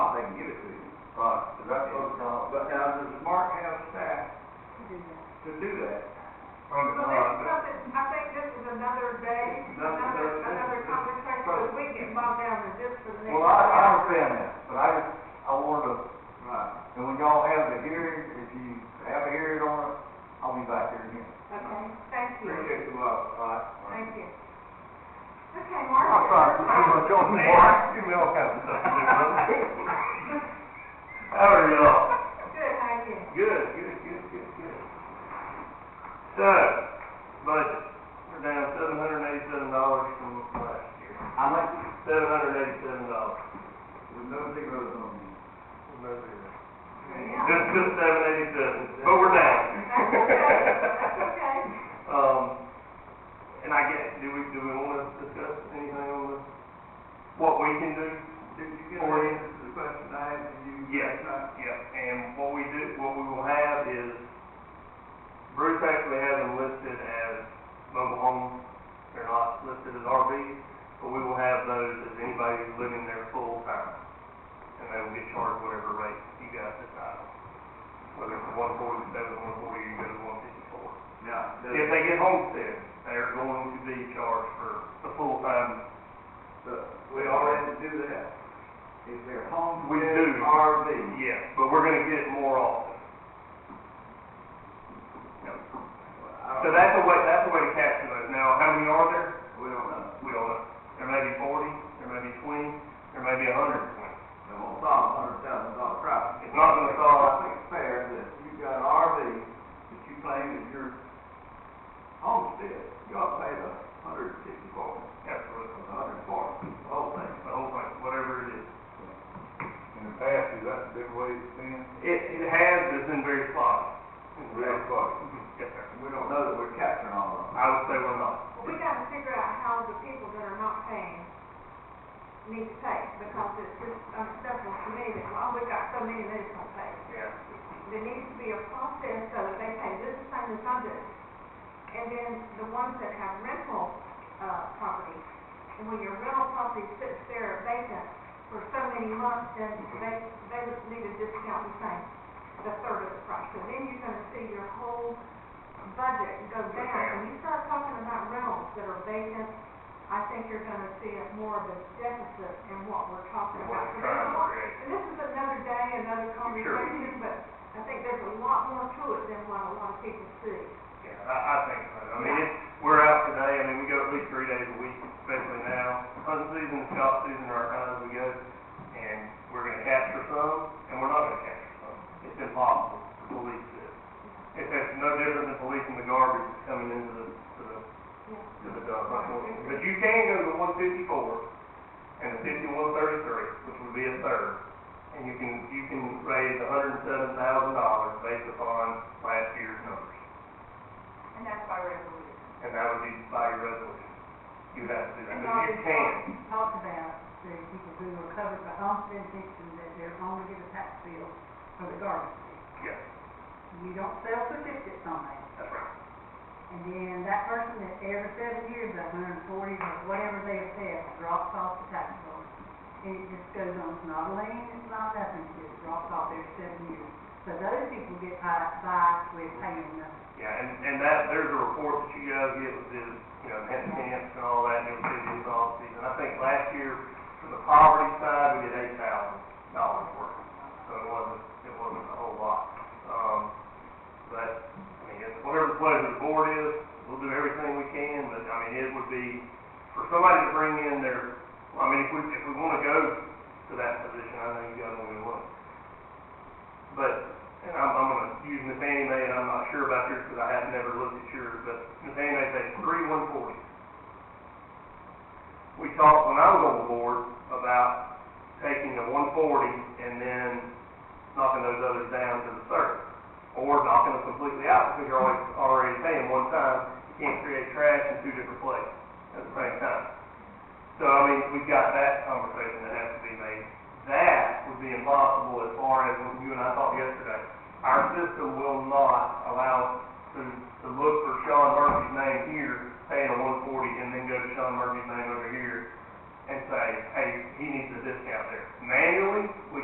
gonna give it to you. Right. So that's what, but now, does Mark have staff to do that? Under, So this is something, I think this is another day, That's- another, that's- another conversation, because we get bogged down with this for the next. well, I, I hour. understand that, but I just, I wanted to, Right. and when y'all have the hearing, if you have a hearing on it, I'll be back here again. Okay, thank you, Appreciate the love, all right. thank you. Okay, I'm Mark. not trying to put much on you, Mark, you will have something to do, How are y'all? Good, how are you? Good, good, good, good, good. So, budget, we're down seven hundred and eighty-seven dollars from last year, I like, seven hundred and eighty-seven dollars. With no zeros on you. Yeah. Just, just seven eighty-seven, but we're down. That's okay, that's okay. Um, and I guess, do we, do we wanna discuss anything on the, what we can do? Did you get Or- an answer to the question I asked you? Yes. Uh, Yep, and what we do, what we will have is, Bruce actually has them listed as mobile homes, they're not listed as RVs, but we will have those as anybody who's living there full time. And they will get charged whatever rate you guys decide on, whether it's one forty-seven, one forty, you go to one fifty-four. Now, does, If they get homestead, they're going to be charged for the full time, the- we already do that. Is there home? We with do. RV? yes, but we're gonna get it more often. So that's a way, that's a way to capture those. Now, how many are there? We don't know. We don't know. There may be forty, there may be twenty, there may be a hundred and twenty. It won't solve a hundred thousand dollar problem. It's not gonna solve- I think it's fair that you've got an RV that you claim is your homestead, you ought to pay the hundred sixty-four, Absolutely. the hundred forty, the whole thing. The whole thing, whatever it is. In the past, is that the way it's been? It, it has, but it's been very spotty. It's very Very spotty. spotty. Yes, sir. We don't know that we're capturing all of them. I would say we're not. Well, we gotta figure out how the people that are not paying need to pay, because it's just unacceptable to me that, well, we got so many that don't pay. Yeah. there needs to be a process so that they pay this same as others. And then the ones that have rental, uh, property, and when your rental property sits there vacant for so many months, then they, they would need a discount the same, the third of the price. So then you're gonna see your whole budget go down. When you start talking about rentals that are vacant, I think you're gonna see it more of a deficit in what we're talking What about. we're So trying there's a to lot- create. and this is another day, another conversation, but I think there's a lot more to it than what a lot of people see. Yeah, I, I think so. I mean, it's, we're out today, I mean, we go at least three days a week, especially now. Hunting season, shop season are our times we go, and we're gonna capture some, and we're not gonna capture some. It's impossible to police this. If that's no different than policing the garbage that's coming into the, to the, to the dump. But you can go to one fifty-four and the fifty-one thirty-three, which would be a third, and you can, you can raise a hundred and seven thousand dollars based upon last year's numbers. And that's why we're able to. And that would be by your resolution. You have to do that, And but all you this can. talk, talk about, the people who are covered by homestead exemption, that they're only get a tax bill for the garbage. Yes, You don't sell certificates on that. that's right. And then that person that every seven years, a hundred and forty, or whatever they have said, drops off the tax bill. And it just goes on, it's not a lien, it's not nothing, it just drops off every seven years. So those people get by, by with paying nothing. Yeah, and, and that, there's a report that you guys get with this, you know, net camps and all that, and it'll be in all season. I think last year, for the poverty side, we did eight thousand dollars worth. So it wasn't, it wasn't a whole lot. Um, but, I mean, it's whatever the pleasure of the board is, we'll do everything we can, but, I mean, it would be, for somebody to bring in their, well, I mean, if we, if we wanna go to that position, I know you guys know we want. But, and I'm, I'm gonna use Miss Annie Mae, and I'm not sure about yours, because I have never looked at yours, but Miss Annie Mae said three one forty. We talked, when I was on the board, about taking the one forty and then knocking those others down to the third or knocking them completely out, because you're always already paying one time, you can't create trash in two different places at the same time. So, I mean, we've got that conversation that has to be made. That would be impossible as far as what you and I thought yesterday. Our system will not allow us to, to look for Sean Murphy's name here, paying a one forty, and then go to Sean Murphy's name over here and say, hey, he needs a discount there. Manually, we